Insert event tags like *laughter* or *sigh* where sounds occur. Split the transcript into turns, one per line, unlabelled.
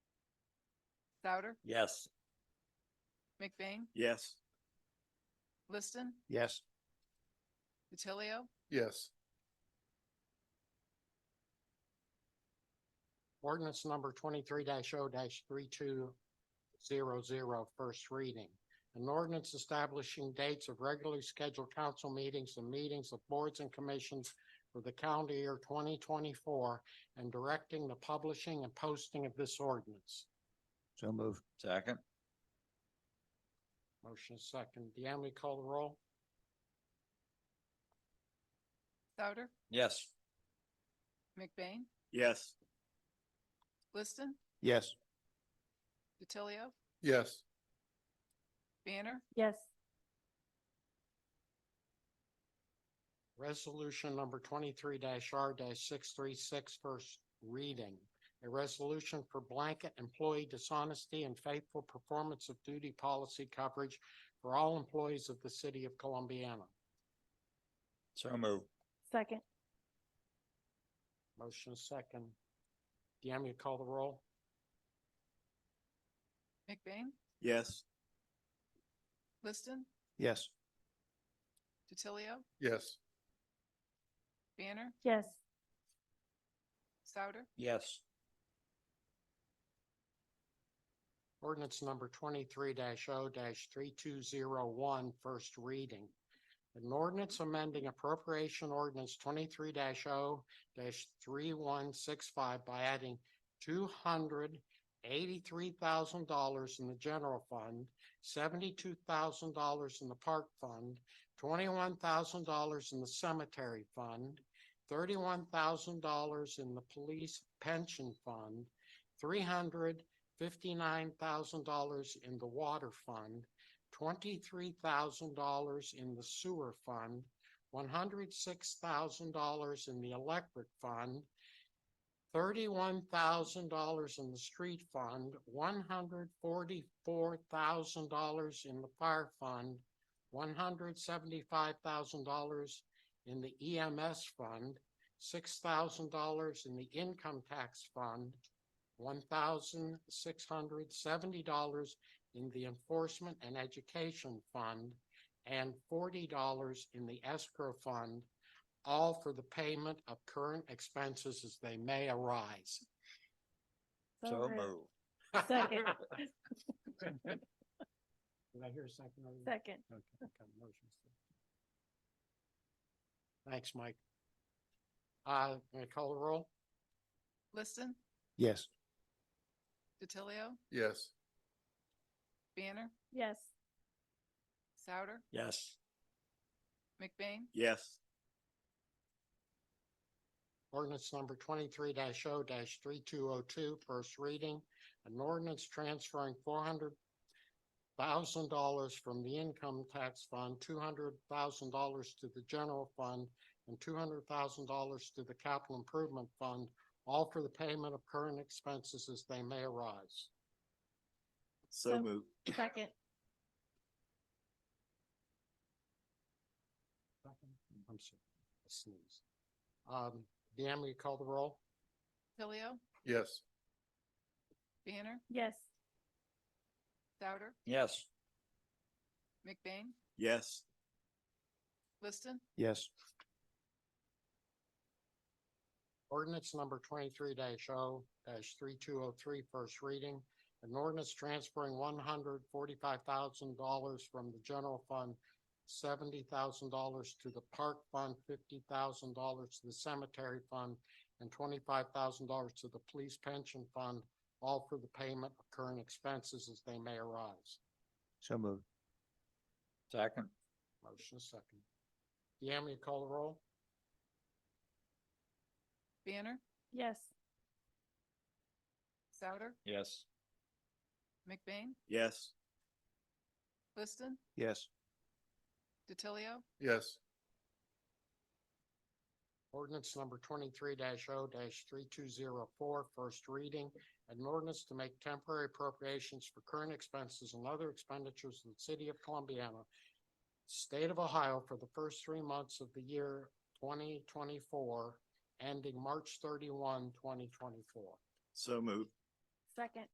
Souter,
Yes.
McBain,
Yes.
Liston,
Yes.
DiTilio,
Yes. Ordinance number twenty-three 0 three-two-zero-zero, first reading. An ordinance establishing dates of regularly scheduled council meetings and meetings of boards and commissions for the calendar year twenty twenty-four and directing the publishing and posting of this ordinance.
So move. Second?
Motion is second. Deanne, we call the roll?
Souter,
Yes.
McBain,
Yes.
Liston,
Yes.
DiTilio,
Yes.
Banner,
yes,
Resolution number twenty-three R six-three-six, first reading. A resolution for blanket employee dishonesty and faithful performance of duty policy coverage for all employees of the city of Columbiana.
So move.
second,
Motion is second. Deanne, you call the roll?
McBain,
Yes.
Liston,
Yes.
DiTilio,
Yes.
Banner,
yes,
Souter,
Yes.
Ordinance number twenty-three 0 three-two-zero-one, first reading. An ordinance amending appropriation ordinance twenty-three 0 three-one-six-five by adding two hundred eighty-three thousand dollars in the general fund, seventy-two thousand dollars in the park fund, twenty-one thousand dollars in the cemetery fund, thirty-one thousand dollars in the police pension fund, three hundred fifty-nine thousand dollars in the water fund, twenty-three thousand dollars in the sewer fund, one hundred six thousand dollars in the electric fund, thirty-one thousand dollars in the street fund, one hundred forty-four thousand dollars in the fire fund, one hundred seventy-five thousand dollars in the EMS fund, six thousand dollars in the income tax fund, one thousand six hundred seventy dollars in the Enforcement and Education Fund and forty dollars in the escrow fund, all for the payment of current expenses as they may arise.
So
So
moved.
move.
*laughs*
Second.
Did I hear a second? on that?
second,
Okay, okay, motion is- Thanks, Mike. Uh, may I call the roll?
Liston,
Yes.
DiTilio,
Yes.
Banner,
yes,
Souter,
Yes.
McBain,
Yes.
Ordinance number twenty-three 0 three-two-oh-two, first reading. An ordinance transferring four hundred thousand dollars from the income tax fund, two hundred thousand dollars to the general fund, and two hundred thousand dollars to the capital improvement fund, all for the payment of current expenses as they may arise.
So
So-
move.
second,
I'm sorry, I sneezed. Um, Deanne, will you call the roll?
DiTilio,
Yes.
Banner,
yes,
Souter,
Yes.
McBain,
Yes.
Liston,
Yes.
Ordinance number twenty-three oh, 0 three-two-oh-three, oh first reading. An ordinance transferring one hundred forty-five thousand dollars from the general fund, seventy thousand dollars to the park fund, fifty thousand dollars to the cemetery fund, and twenty-five thousand dollars to the police pension fund, all for the payment of current expenses as they may arise.
So move. Second?
Motion is second. Deanne, will you call the roll?
Banner,
yes,
Souter,
Yes.
McBain,
Yes.
Liston,
Yes.
DiTilio,
Yes. Ordinance number twenty-three 0 three-two-zero-four, first reading. An ordinance to make temporary appropriations for current expenses and other expenditures in the city of Columbiana, state of Ohio for the first three months of the year twenty twenty-four, ending March 31, 2024.
So move.
second,